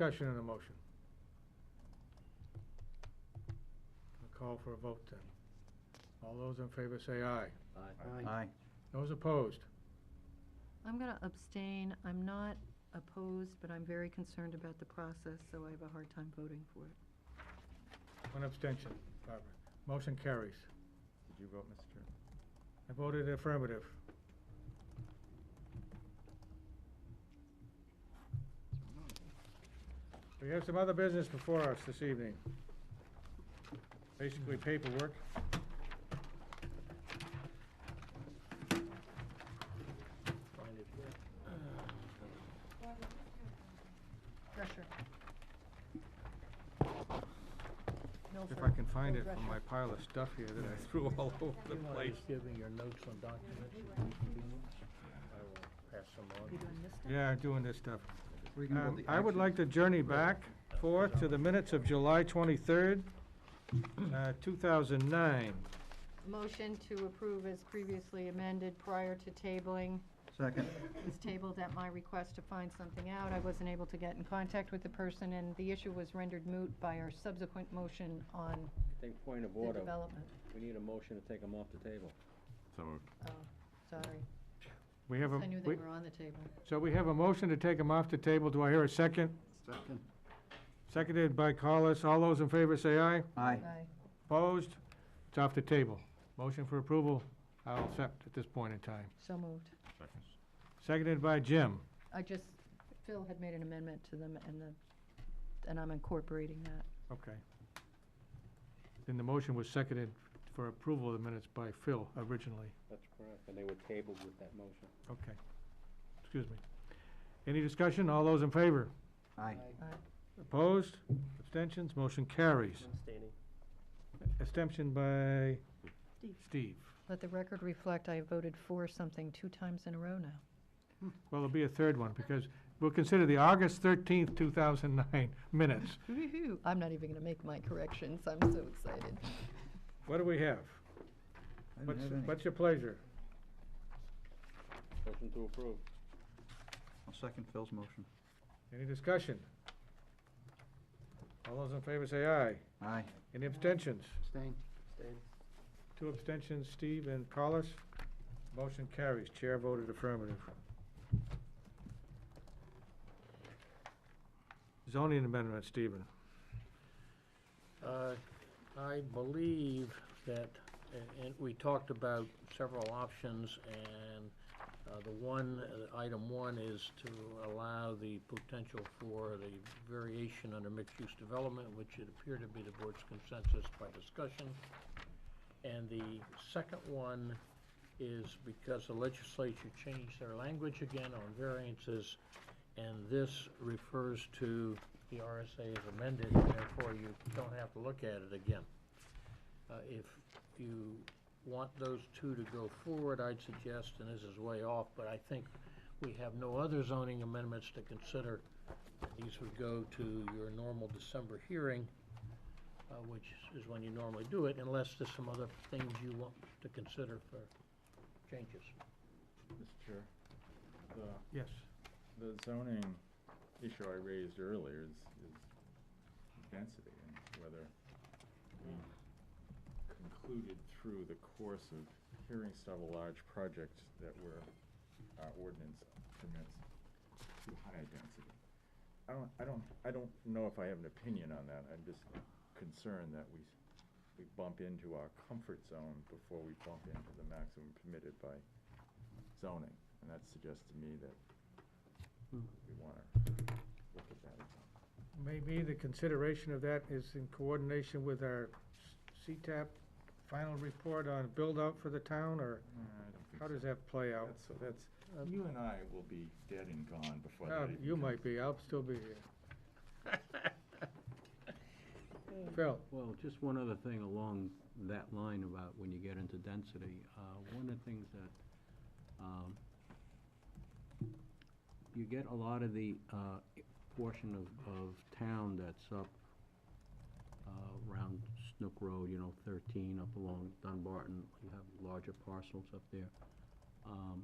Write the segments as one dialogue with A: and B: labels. A: Discussion on the motion. I'll call for a vote then. All those in favor say aye.
B: Aye.
A: Those opposed?
C: I'm going to abstain. I'm not opposed, but I'm very concerned about the process, so I have a hard time voting for it.
A: One abstention, Barbara. Motion carries.
B: Did you vote, Mr. Chair?
A: I voted affirmative. We have some other business before us this evening. Basically paperwork.
C: Pressure.
A: If I can find it from my pile of stuff here that I threw all over the
D: You want
A: place.
D: to just give me your notes on documents at your convenience? I will pass them on.
A: Yeah, doing this stuff.
B: We can
A: Um,
B: vote the
A: I would like to journey back forth to the minutes of July twenty-third, uh, two thousand nine.
C: Motion to approve as previously amended prior to tabling
B: Second.
C: was tabled at my request to find something out. I wasn't able to get in contact with the person, and the issue was rendered moot by our subsequent motion on
E: I think point of
C: the
E: order,
C: development.
E: we need a motion to take them off the table.
F: So moved.
C: Oh, sorry.
A: We have a,
C: I knew they
A: we-
C: were on the table.
A: so we have a motion to take them off the table. Do I hear a second?
B: Second.
A: Seconded by Collis. All those in favor say aye.
B: Aye.
C: Aye.
A: Opposed? It's off the table. Motion for approval, I'll accept at this point in time.
C: So moved.
A: Seconded by Jim.
C: I just, Phil had made an amendment to them, and the, and I'm incorporating that.
A: Okay. Then the motion was seconded for approval of the minutes by Phil originally.
E: That's correct. And they were tabled with that motion.
A: Okay. Excuse me. Any discussion? All those in favor?
B: Aye.
A: Opposed? Abstentions? Motion carries. Abstention by Steve.
C: Let the record reflect, I voted for something two times in a row now.
A: Well, there'll be a third one because we'll consider the August thirteenth, two thousand nine minutes.
C: Woo-hoo. I'm not even gonna make my corrections, I'm so excited.
A: What do we have?
B: I
A: What's,
B: didn't have any.
A: what's your pleasure?
E: Motion to approve.
B: I'll second Phil's motion.
A: Any discussion? All those in favor say aye.
B: Aye.
A: Any abstentions?
B: Abstain.
A: Two abstentions, Steve and Collis. Motion carries. Chair voted affirmative. Zoning amendment, Stephen.
D: Uh, I believe that, and- and we talked about several options, and uh, the one, uh, item one is to allow the potential for the variation under mixed-use development, which it appeared to be the board's consensus by discussion. And the second one is because the legislature changed their language again on variances, and this refers to the RSA as amended, and therefore you don't have to look at it again. Uh, If you want those two to go forward, I'd suggest, and this is way off, but I think we have no other zoning amendments to consider. These would go to your normal December hearing, uh, which is when you normally do it, unless there's some other things you want to consider for changes.
G: Mr. Chair, the,
A: Yes.
G: the zoning issue I raised earlier is, is density and whether we concluded through the course of hearing several large projects that were, our ordinance permits too high a density. I don't, I don't, I don't know if I have an opinion on that. I'm just concerned that we, we bump into our comfort zone before we bump into the maximum permitted by zoning. And that suggests to me that we want to look at that. again.
A: Maybe the consideration of that is in coordination with our s- CTAP final report on build-out for the town, or
G: Uh, I don't think
A: how
G: so.
A: does that play out?
G: That's, so that's, you and I will be dead and gone before that
A: Uh,
G: even
A: You
G: comes.
A: might be, I'll still be here. Phil,
H: Well, just one other thing along that line about when you get into density. Uh, One of the things that, um, you get a lot of the uh, portion of, of town that's up uh, around Snook Road, you know, 13, up along Dunbarton. You have larger parcels up there. Um,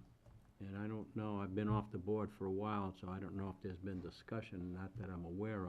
H: And I don't know, I've been off the board for a while, so I don't know if there's been discussion, not that I'm aware of.